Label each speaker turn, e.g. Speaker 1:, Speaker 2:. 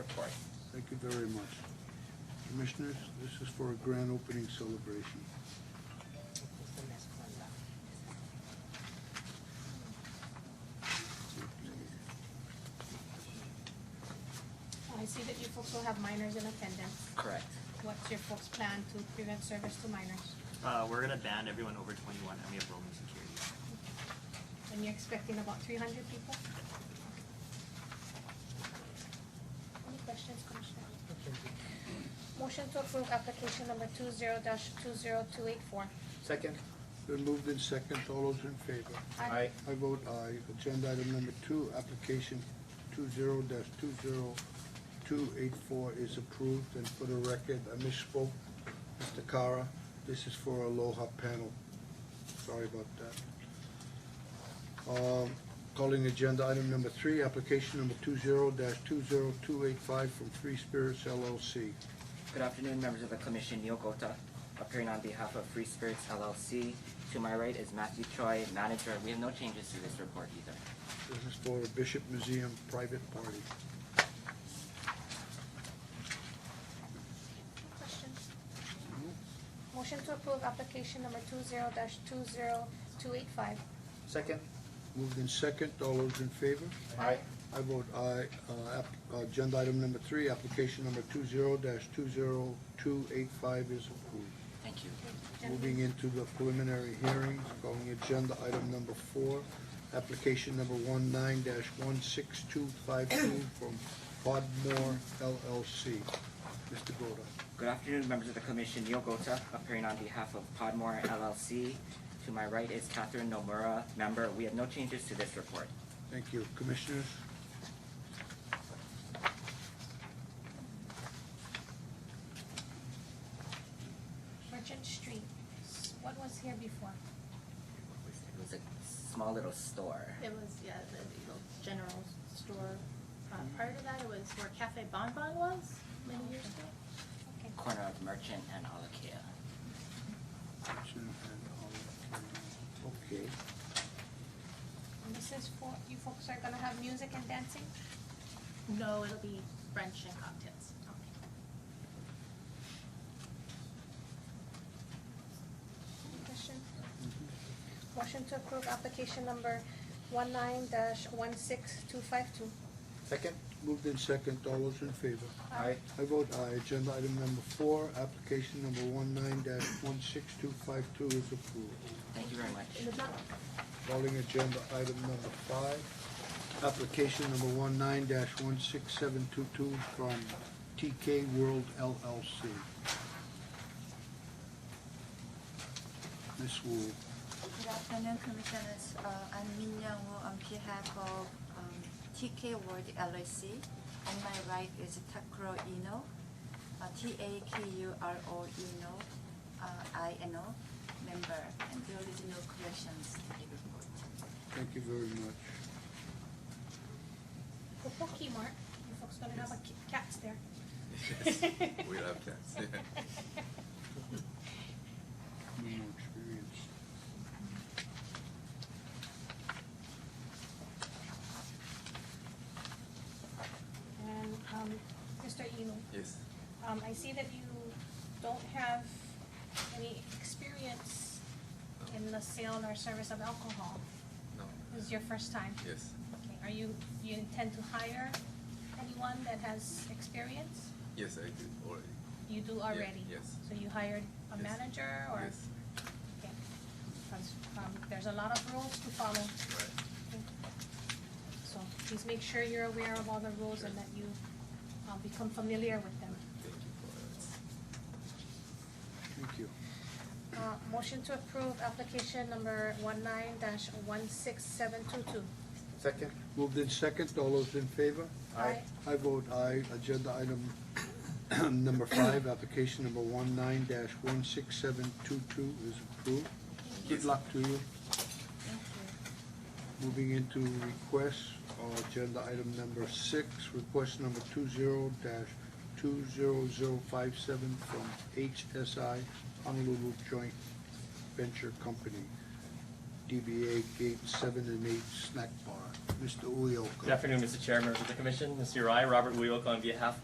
Speaker 1: report.
Speaker 2: Thank you very much. Commissioners, this is for a grand opening celebration.
Speaker 3: I see that you folks will have minors in attendance.
Speaker 1: Correct.
Speaker 3: What's your folks' plan to prevent service to minors?
Speaker 1: Uh, we're gonna ban everyone over twenty-one and we have roaming security.
Speaker 3: And you're expecting about three hundred people? Any questions, Commissioner? Motion to approve application number two zero dash two zero two eight four.
Speaker 4: Second?
Speaker 2: Been moved in second, all those in favor? I vote aye. Agenda item number two, application two zero dash two zero two eight four is approved. And for the record, I misspoke, Mr. Cara, this is for Aloha Panel. Sorry about that. Um, Calling agenda item number three, application number two zero dash two zero two eight five from Free Spirits LLC.
Speaker 5: Good afternoon, members of the commission, Neil Gota, appearing on behalf of Free Spirits LLC. To my right is Matthew Choi, manager. We have no changes to this report either.
Speaker 2: This is for Bishop Museum private party.
Speaker 3: Questions? Motion to approve application number two zero dash two zero two eight five.
Speaker 4: Second?
Speaker 2: Moved in second, all those in favor?
Speaker 4: Aye.
Speaker 2: I vote aye. Uh, app- uh, Agenda item number three, application number two zero dash two zero two eight five is approved.
Speaker 5: Thank you.
Speaker 2: Moving into the preliminary hearings, calling agenda item number four, application number one nine dash one six two five two from Podmore LLC. Mr. Goda.
Speaker 5: Good afternoon, members of the commission, Neil Gota, appearing on behalf of Podmore LLC. To my right is Catherine Nomura, member. We have no changes to this report.
Speaker 2: Thank you. Commissioners?
Speaker 3: Merchant Street, S- what was here before?
Speaker 5: It was a small little store.
Speaker 6: It was, yeah, the you know, general store. Uh, Prior to that, it was where Cafe Bon Bon was many years ago.
Speaker 3: Okay.
Speaker 5: Corner of Merchant and Alakia.
Speaker 2: Okay.
Speaker 3: And this is for, you folks are gonna have music and dancing?
Speaker 6: No, it'll be brunch and cocktails.
Speaker 3: Any questions? Motion to approve application number one nine dash one six two five two.
Speaker 4: Second?
Speaker 2: Moved in second, all those in favor?
Speaker 4: Aye.
Speaker 3: Uh,
Speaker 2: I vote aye. Agenda item number four, application number one nine dash one six two five two is approved.
Speaker 5: Thank you very much.
Speaker 6: In the back,
Speaker 2: Calling agenda item number five, application number one nine dash one six seven two two from TK World LLC. Ms. Wu,
Speaker 7: Good afternoon, Commissioners. Uh, I'm Min Young Woo on behalf of um, TK World LLC. On my right is Takuro Ino, uh, T-A-K-U-R-O Ino, uh, I-N-O, member, and there is no corrections to the report.
Speaker 2: thank you very much.
Speaker 3: The Poke Mart, you folks gonna have a ki- cats there.
Speaker 8: We love cats.
Speaker 2: need more experience.
Speaker 3: And, um, Mr. Eno,
Speaker 8: Yes.
Speaker 3: um, I see that you don't have any experience in the sale or service of alcohol.
Speaker 8: No.
Speaker 3: This is your first time.
Speaker 8: Yes.
Speaker 3: Okay, are you, you intend to hire anyone that has experience?
Speaker 8: Yes, I do already.
Speaker 3: You do already?
Speaker 8: yes.
Speaker 3: So you hired a
Speaker 8: Yes.
Speaker 3: manager or?
Speaker 8: Yes.
Speaker 3: Okay. 'Cause, um, there's a lot of rules to follow,
Speaker 8: Right.
Speaker 3: so please make sure you're aware of all the rules and that you, um, become familiar with them.
Speaker 8: Thank you for that.
Speaker 2: Thank you.
Speaker 3: Uh, motion to approve application number one nine dash one six seven two two.
Speaker 4: Second?
Speaker 2: Moved in second, all those in favor?
Speaker 4: Aye.
Speaker 2: I vote aye. Agenda item number five, application number one nine dash one six seven two two is approved. Good luck to you.
Speaker 7: Thank you.
Speaker 2: Moving into requests, uh, agenda item number six, request number two zero dash two zero zero five seven from HSI Honolulu Joint Venture Company. DBA Gate Seven and Eight Snack Bar. Mr. Uyoka.
Speaker 9: Good afternoon, Mr. Chair, members of the commission. Mr. Rai, Robert Uyoka on behalf